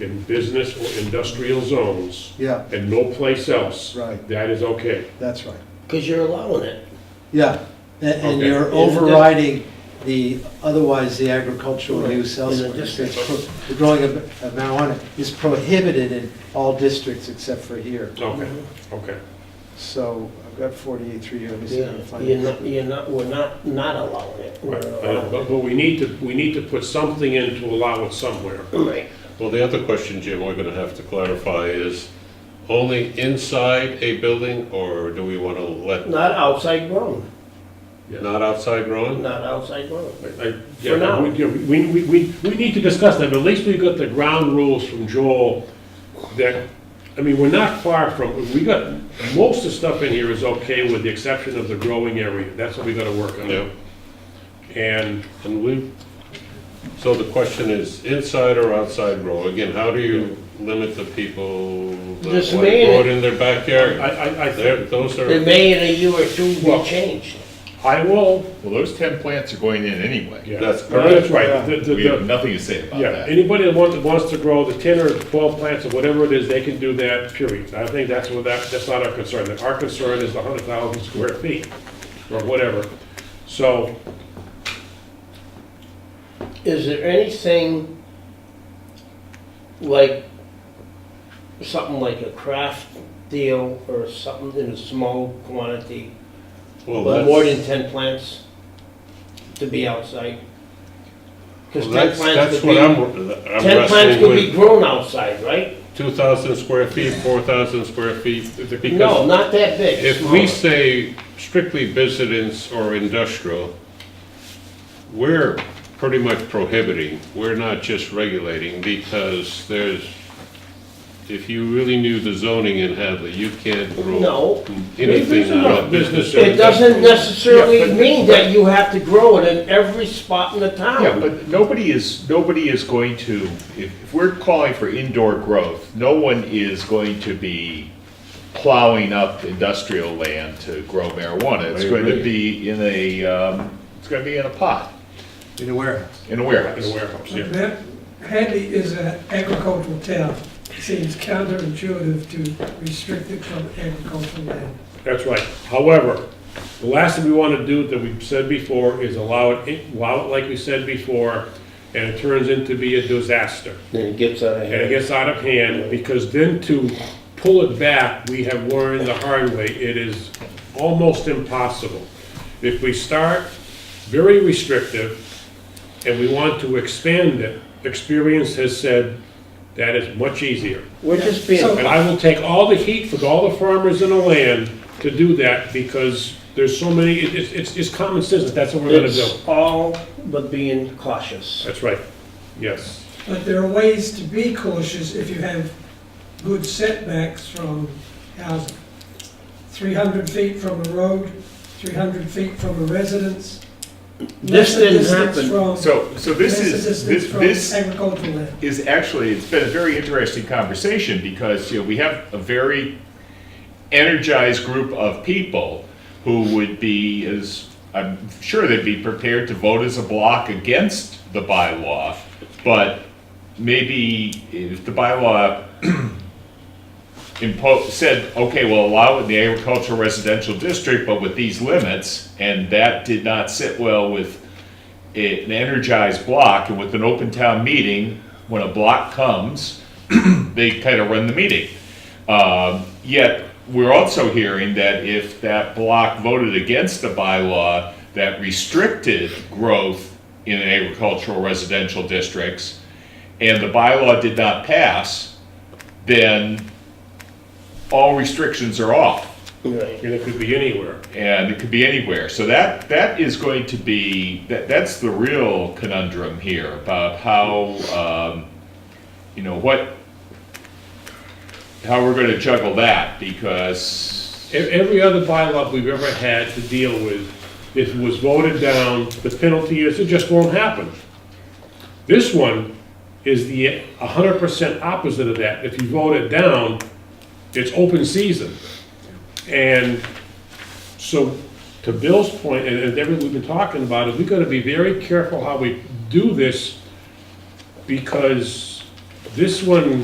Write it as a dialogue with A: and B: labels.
A: in business or industrial zones
B: Yeah,
A: and no place else,
B: Right.
A: that is okay.
B: that's right.
C: because you're allowing it.
B: Yeah, and, and
A: Okay.
B: you're overriding the, otherwise the agricultural
C: Right.
B: use
C: In a
B: elsewhere.
C: district.
B: It's pro- The growing of of marijuana is prohibited in all districts except for here.
A: Okay, okay.
B: So I've got forty-eight, three, let me see if I
C: Yeah,
B: can find
C: you're not,
B: it.
C: you're not, we're not, not allowing it. We're
A: Right.
C: allowing
A: But,
C: it.
A: but we need to, we need to put something in to allow it somewhere.
C: Right,
D: Well, the other question, Jim, we're gonna have to clarify is only inside a building or do we wanna let,
C: not outside grown,
D: not outside growing?
C: not outside grown.
A: I- I- yeah,
C: For now.
A: we- yeah, We, we, we, we need to discuss that, but at least we got the ground rules from Joel that, I mean, we're not far from, we got, most of the stuff in here is okay with the exception of the growing area. That's what we gotta work
D: Yeah,
A: on. And
D: and we, so the question is inside or outside grow? Again, how do you limit the people that
C: Just
D: want to
C: made
D: grow
C: it.
D: it in their
A: I,
D: backyard?
A: I, I think,
D: There, those
C: They
D: are,
C: may in a year or two
A: Well-
C: be changed.
A: I will,
E: Well, those ten plants are going in anyway.
A: yeah.
D: That's
A: No, That's
D: correct.
A: right. The- the-
E: We have
A: the-
E: nothing to say about
A: Yeah,
E: that.
A: anybody that wants, wants to grow the ten or twelve plants or whatever it is, they can do that, period. I think that's what, that, that's not our concern. Our concern is the hundred thousand square feet, or whatever. So,
C: Is there anything like, something like a craft deal or something in a small quantity,
D: well,
C: but more than
D: that's,
C: ten plants to be outside? Because
D: well,
C: ten
D: that's,
C: plants
D: that's
C: could
D: what I'm,
C: be,
D: I'm
C: ten plants
D: wrestling
C: could be
D: with.
C: grown outside, right?
D: Two thousand square feet, four thousand square feet,
C: No,
D: because
C: not that big.
D: If
C: smaller.
D: we say strictly business or industrial, we're pretty much prohibiting, we're not just regulating, because there's, if you really knew the zoning in Hadley, you can't rule
C: No,
D: anything
A: There's enough
D: out of business. or
A: business.
C: it doesn't
D: industrial.
A: Yeah,
C: necessarily
A: but-
C: mean that you have to grow it in every spot in the town.
E: Yeah, but nobody is, nobody is going to, if, if we're calling for indoor growth, no one is going to be plowing up industrial land to grow marijuana. It's
D: I
E: going to
D: agree.
E: be in a, um, it's gonna be in a pot,
B: In a warehouse.
E: in a
A: in
E: warehouse.
A: a warehouse, yeah.
F: That- Hadley is an agricultural town. It seems counterintuitive to restrict it from agricultural land.
A: That's right. However, the last thing we want to do that we've said before is allow it, in- allow it like we said before, and it turns into be a disaster.
C: Then it gets out of
A: And it
C: hand.
A: gets out of hand, because then to pull it back, we have learned the hard way, it is almost impossible. If we start very restrictive, and we want to expand it, experience has said that is much easier.
C: We're just being,
F: So-
A: And I will take all the heat for all the farmers in the land to do that, because there's so many, it- it's, it's, it's common sense, that that's what we're gonna do.
C: it's all but being cautious.
A: That's right, yes.
F: But there are ways to be cautious if you have good setbacks from housing. 300 feet from a road, 300 feet from a residence.
C: This
F: lesser
C: didn't
F: distance
C: happen.
F: from-
E: So, so this
F: lesser
E: is,
F: distance
E: this,
F: from
E: this
F: Agricultural land.
E: is actually, it's been a very interesting conversation because, you know, we have a very energized group of people who would be, as, I'm sure they'd be prepared to vote as a block against the bylaw, but maybe if the bylaw imposed, said, okay, we'll allow it in the agricultural residential district, but with these limits, and that did not sit well with a- an energized block, and with an open town meeting, when a block comes, they kind of run the meeting. Um, Yet, we're also hearing that if that block voted against the bylaw that restricted growth in agricultural residential districts, and the bylaw did not pass, then all restrictions are off
C: Right.
A: And it could be anywhere.
E: and it could be anywhere. So that that is going to be that that's the real conundrum here about how um, you know what how we're going to juggle that because
A: E- Every other bylaw we've ever had to deal with, it was voted down, the penalty is it just won't happen. This one is the hundred percent opposite of that. If you vote it down, it's open season. And so, to Bill's point, and and everything we've been talking about, is we gotta be very careful how we do this, because This one